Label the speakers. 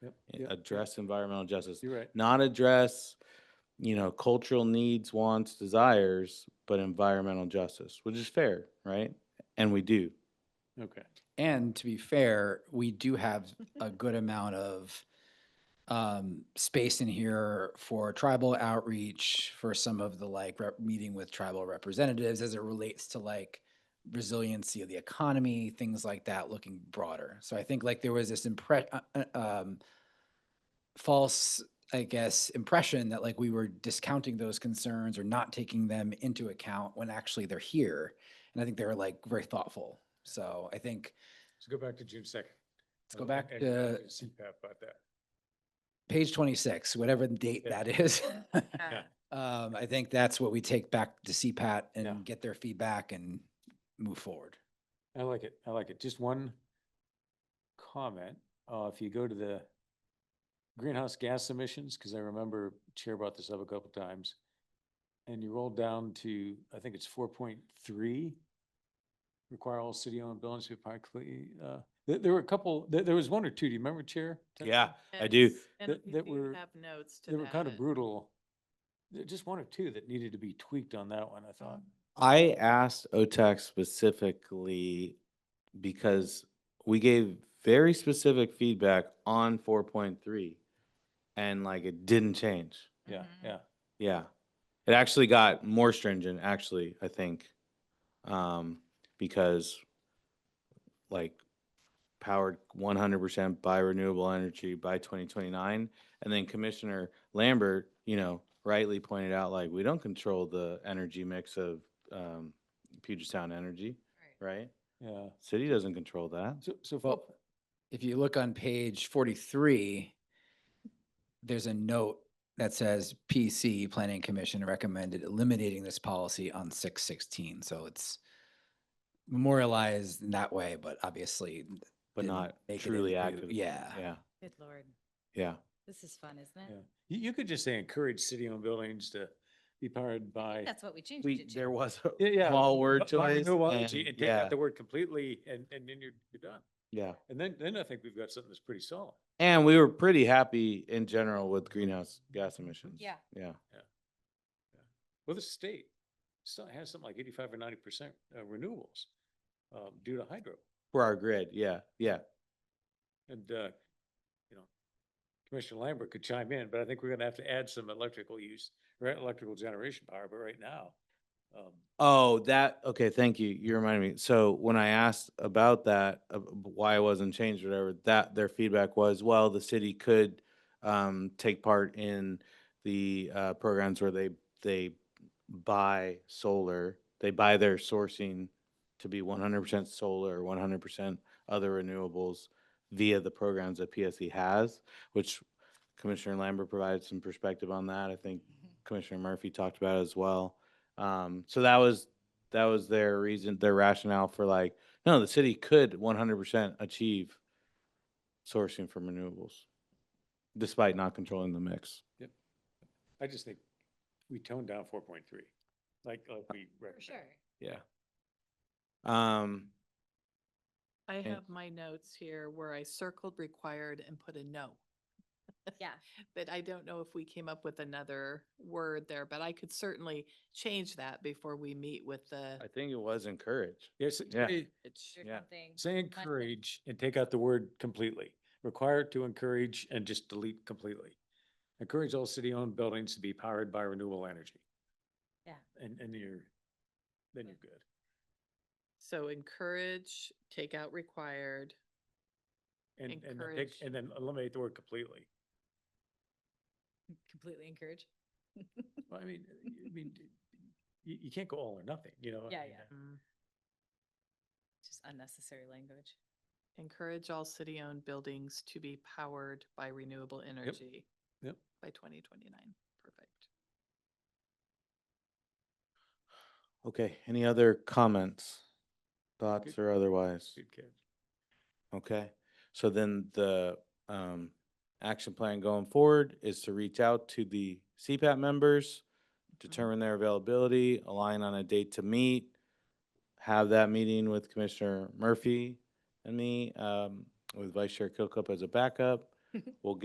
Speaker 1: Yep,
Speaker 2: a-
Speaker 1: yep,
Speaker 2: address environmental justice,
Speaker 1: You're right.
Speaker 2: not address, you know, cultural needs, wants, desires, but environmental justice, which is fair, right? And we do.
Speaker 1: Okay.
Speaker 3: And to be fair, we do have a good amount of um, space in here for tribal outreach, for some of the like rep- meeting with tribal representatives as it relates to like resiliency of the economy, things like that, looking broader. So I think like there was this impre- uh, uh, um, false, I guess, impression that like we were discounting those concerns or not taking them into account when actually they're here. And I think they were like very thoughtful. So I think
Speaker 4: Let's go back to June second.
Speaker 3: Let's
Speaker 2: Oh,
Speaker 3: go back to
Speaker 4: CPAP about that.
Speaker 3: page twenty-six, whatever the date
Speaker 4: Yeah.
Speaker 3: that is.
Speaker 4: Yeah.
Speaker 3: Um, I think that's what we take back to CPAT
Speaker 1: Yeah.
Speaker 3: and get their feedback and move forward.
Speaker 1: I like it. I like it. Just one comment. Uh, if you go to the greenhouse gas emissions, because I remember Chair brought this up a couple times, and you roll down to, I think it's four point three, require all city-owned buildings to be practically, uh, there, there were a couple, there, there was one or two. Do you remember, Chair?
Speaker 2: Yeah, I do.
Speaker 5: Yes, And
Speaker 1: That-
Speaker 5: we
Speaker 1: that
Speaker 5: do
Speaker 1: were-
Speaker 5: have notes to
Speaker 1: They
Speaker 5: that. uh,
Speaker 1: were kind of brutal. There- Just one or two that needed to be tweaked on that one, I thought.
Speaker 5: Mm-hmm.
Speaker 2: I asked OTAC specifically because we gave very specific feedback on four point three. And like it didn't change.
Speaker 1: Yeah,
Speaker 5: Mhm.
Speaker 1: yeah.
Speaker 2: Yeah. It actually got more stringent, actually, I think. Um, because like powered one hundred percent by renewable energy by twenty twenty-nine. And then Commissioner Lambert, you know, rightly pointed out, like, we don't control the energy mix of um Puget Sound Energy,
Speaker 5: Right.
Speaker 2: right?
Speaker 1: Yeah.
Speaker 2: City doesn't control that.
Speaker 1: So, so if-
Speaker 3: Well, if you look on page forty-three, there's a note that says PC Planning Commission recommended eliminating this policy on six sixteen, so it's memorialized in that way, but obviously.
Speaker 2: But
Speaker 3: didn't
Speaker 2: not
Speaker 3: make it
Speaker 2: truly
Speaker 3: into-
Speaker 2: active.
Speaker 3: Yeah.
Speaker 2: Yeah,
Speaker 5: Good lord,
Speaker 2: yeah.
Speaker 5: this is fun, isn't
Speaker 1: Yeah.
Speaker 5: it?
Speaker 1: You, you could just say encourage city-owned buildings to be powered by.
Speaker 5: That's what we changed
Speaker 2: We,
Speaker 5: it
Speaker 2: there
Speaker 5: to.
Speaker 2: was
Speaker 1: Yeah,
Speaker 2: a
Speaker 1: yeah,
Speaker 2: small word
Speaker 1: b- by
Speaker 2: choice.
Speaker 1: renewable energy,
Speaker 2: and-
Speaker 1: And take
Speaker 2: Yeah,
Speaker 1: out the word completely and, and then you're, you're done.
Speaker 2: yeah.
Speaker 1: And then, then I think we've got something that's pretty solid.
Speaker 2: And we were pretty happy in general with greenhouse gas emissions.
Speaker 5: Yeah.
Speaker 2: Yeah.
Speaker 1: Well, the state still has something like eighty-five or ninety percent uh, renewables um, due to hydro.
Speaker 2: For our grid. Yeah. Yeah.
Speaker 1: And, uh, you know, Commissioner Lambert could chime in, but I think we're gonna have to add some electrical use, right, electrical generation power, but right now, um,
Speaker 2: Oh, that, okay. Thank you. You reminded me. So when I asked about that, uh, b- why it wasn't changed, or whatever, that their feedback was, well, the city could um, take part in the uh, programs where they, they buy solar, they buy their sourcing to be one hundred percent solar, or one hundred percent other renewables via the programs that PSE has, which Commissioner Lambert provided some perspective on that. I think Commissioner Murphy talked about it as well. Um, so that was, that was their reason, their rationale for like, no, the city could one hundred percent achieve sourcing from renewables despite not controlling the mix.
Speaker 1: I just think we toned down four point three, like, like we
Speaker 5: For sure.
Speaker 1: recommend.
Speaker 2: Yeah. Um,
Speaker 6: I
Speaker 2: And-
Speaker 6: have my notes here where I circled required and put a no.
Speaker 5: Yeah.
Speaker 6: But I don't know if we came up with another word there, but I could certainly change that before we meet with the.
Speaker 2: I think it was encouraged.
Speaker 1: Yes,
Speaker 2: Yeah.
Speaker 1: it-
Speaker 5: There's
Speaker 2: Yeah.
Speaker 5: something-
Speaker 1: Say
Speaker 5: But-
Speaker 1: encourage and take out the word completely. Require to encourage and just delete completely. Encourage all city-owned buildings to be powered by renewable energy.
Speaker 5: Yeah.
Speaker 1: And, and you're, then you're
Speaker 5: Yeah.
Speaker 1: good.
Speaker 6: So encourage, take out required.
Speaker 1: And, and then take,
Speaker 6: Encourage.
Speaker 1: and then eliminate the word completely.
Speaker 5: Completely encourage.
Speaker 1: Well, I mean, I mean, you, you can't go all or nothing, you know? I
Speaker 5: Yeah,
Speaker 1: mean,
Speaker 5: yeah.
Speaker 6: mm,
Speaker 5: Just unnecessary language.
Speaker 6: Encourage all city-owned buildings to be powered by renewable energy.
Speaker 1: Yep.
Speaker 6: By twenty twenty-nine. Perfect.
Speaker 2: Okay, any other comments, thoughts or otherwise?
Speaker 1: Good catch.
Speaker 2: Okay, so then the um action plan going forward is to reach out to the CPAP members, determine their availability, align on a date to meet, have that meeting with Commissioner Murphy and me, um, with Vice Chair Kilcup as a backup. We'll